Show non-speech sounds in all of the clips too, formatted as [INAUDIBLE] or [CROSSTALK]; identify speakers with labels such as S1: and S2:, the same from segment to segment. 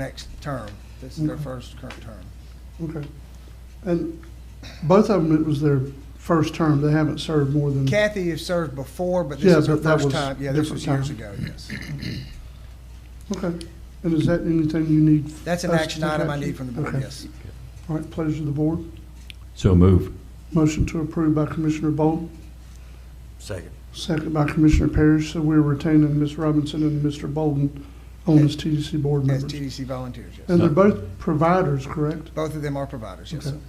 S1: next term. This is their first current term.
S2: Okay. And both of them, it was their first term. They haven't served more than,
S1: Kathy has served before, but this
S2: Yeah,
S1: is her
S2: but that
S1: first
S2: was
S1: time. Yeah, this was
S2: different
S1: years ago,
S2: time. [CLEARS THROAT]
S1: yes.
S2: okay. And is that anything you need?
S1: That's an
S2: us to
S1: action
S2: take
S1: item I
S2: action?
S1: need from the board,
S2: Okay.
S1: yes.
S2: All right, pleasure of the board.
S3: So move.
S2: Motion to approve by Commissioner Bolt,
S4: Second.
S2: second by Commissioner Parrish. So we're retaining Ms. Robinson and Mr. Bolden on as TDC board
S1: As
S2: members.
S1: TDC volunteers, yes.
S2: And they're both providers, correct?
S1: Both of them are providers, yes,
S2: Okay.
S1: sir.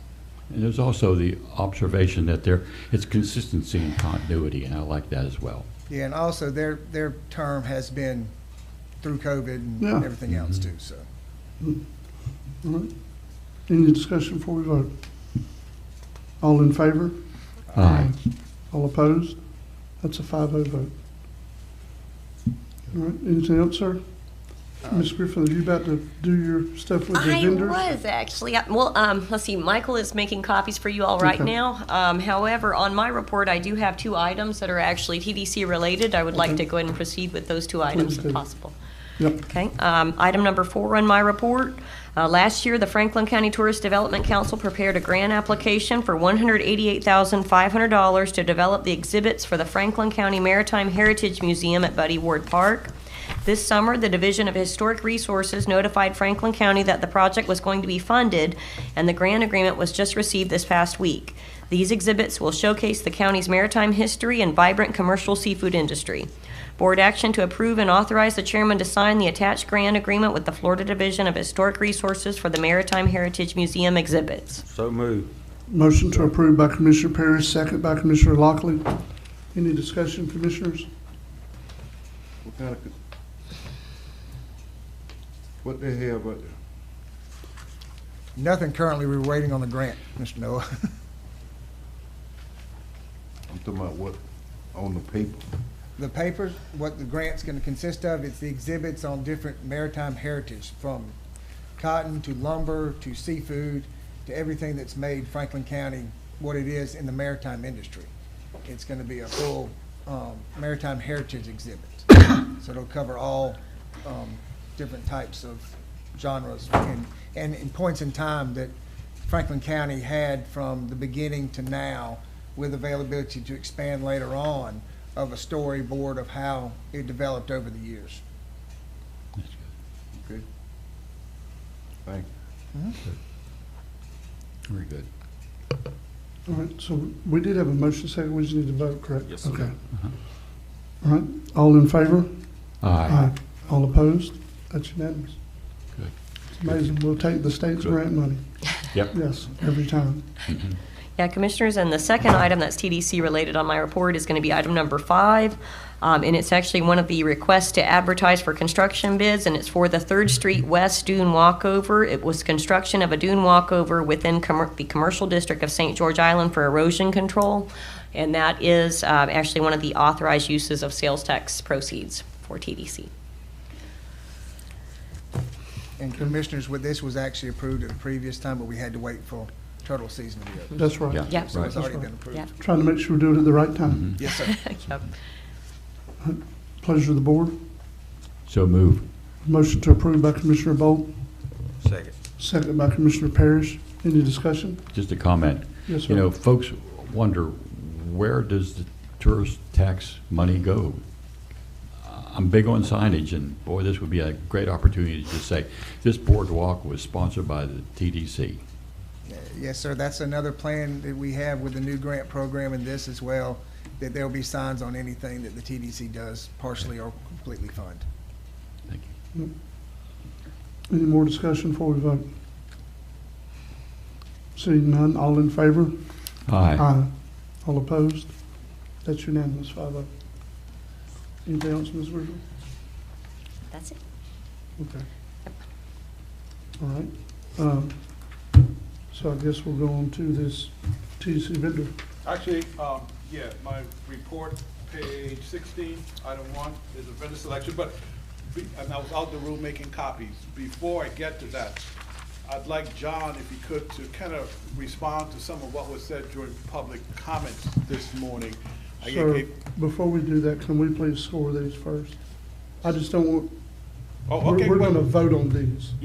S3: And there's also the observation that there, it's consistency and continuity, and I like that as well.
S1: Yeah, and also their, their term has been through COVID and
S2: Yeah.
S1: everything else too, so.
S2: All right. Any discussion before we vote? All in favor?
S3: Aye.
S2: All opposed? That's a 5-0 vote. All right, anything else, sir? Ms. Griffin, are you about to do your stuff with the
S5: I
S2: vendors?
S5: was actually. I- Well, um, let's see. Michael is making copies for you all right
S2: Okay.
S5: now. Um, however, on my report, I do have two items that are actually TDC related. I would like
S2: Okay.
S5: to go ahead and proceed with those two items
S2: do.
S5: if possible.
S2: Yep,
S5: Okay, um, item number four on my report. Uh, last year, the Franklin County Tourist Development Council prepared a grant application for one hundred eighty-eight thousand five hundred dollars to develop the exhibits for the Franklin County Maritime Heritage Museum at Buddy Ward Park. This summer, the Division of Historic Resources notified Franklin County that the project was going to be funded, and the grant agreement was just received this past week. These exhibits will showcase the county's maritime history and vibrant commercial seafood industry. Board action to approve and authorize the chairman to sign the attached grant agreement with the Florida Division of Historic Resources for the Maritime Heritage Museum exhibits.
S4: So move.
S2: motion to approve by Commissioner Parrish, second by Commissioner Lockley. Any discussion, commissioners?
S6: What kind of, co- what they have, out there?
S1: Nothing currently, we're waiting on the grant, Mr. Noah. [LAUGHS]
S6: I'm talking about what, on the paper?
S1: The papers, what the grant's gonna consist of, it's the exhibits on different maritime heritage, from cotton to lumber to seafood to everything that's made Franklin County what it is in the maritime industry. It's gonna be a full, um, maritime heritage exhibit. So it'll cover all, um, different types of genres and, and in points in time that Franklin County had from the beginning to now with availability to expand later on of a storyboard of how it developed over the years.
S6: Okay. Thank you.
S3: Very good.
S2: All right, so we did have a motion, second, we just need to vote, correct?
S4: Yes, sir.
S2: Okay.
S3: Uh-huh.
S2: All right, all in favor?
S3: Aye.
S2: All opposed? That's unanimous.
S3: Good.
S2: It's amazing, we'll take the state's
S3: Good.
S2: grant money,
S3: Yep.
S2: yes, every time.
S5: Yeah, Commissioners, and the second item that's TDC related on my report is going to be item number five. Um, And it's actually one of the requests to advertise for construction bids, and it's for the Third Street West Dune Walkover. It was construction of a dune walkover within commer- the commercial district of St. George Island for erosion control. And that is um, actually one of the authorized uses of sales tax proceeds for TDC.
S1: And commissioners, with this was actually approved at the previous time, but we had to wait for turtle season to be over.
S2: That's right.
S3: Yeah.
S5: Yeah.
S1: So it's
S3: Right.
S1: already
S3: Mm-hmm.
S1: been
S5: Yeah.
S1: approved.
S2: Trying to make sure we do it at the right time.
S1: Yes, sir.
S5: Yep.
S2: Pleasure of the board.
S3: So move.
S2: Motion to approve by Commissioner Bolt,
S4: Second.
S2: second by Commissioner Parrish. Any discussion?
S3: Just a comment.
S2: Yes,
S3: You know,
S2: sir.
S3: folks wonder, where does the tourist tax money go? Uh, I'm big on signage, and boy, this would be a great opportunity to just say, this boardwalk was sponsored by the TDC.
S1: Uh, Yes, sir. That's another plan that we have with the new grant program and this as well, that there'll be signs on anything that the TDC does partially or completely fund.
S3: Thank you.
S2: Any more discussion before we vote? Seeing none, all in favor?
S3: Aye.
S2: All opposed? That's unanimous, five oh. Anything else, Ms. Virgil?
S5: That's it.
S2: Okay. All right. Um, So I guess we'll go on to this TC vendor.
S7: Actually, um, yeah, my report, page sixteen, item one, is a vendor selection, but, be- and I was out the room making copies. Before I get to that, I'd like John, if he could, to kind of respond to some of what was said during public comments this morning. I
S2: Sir,
S7: gave-
S2: before we do that, can we please score these first? I just don't want,
S7: Oh,
S2: we're
S7: okay,
S2: we're
S7: well-
S2: gonna vote on these.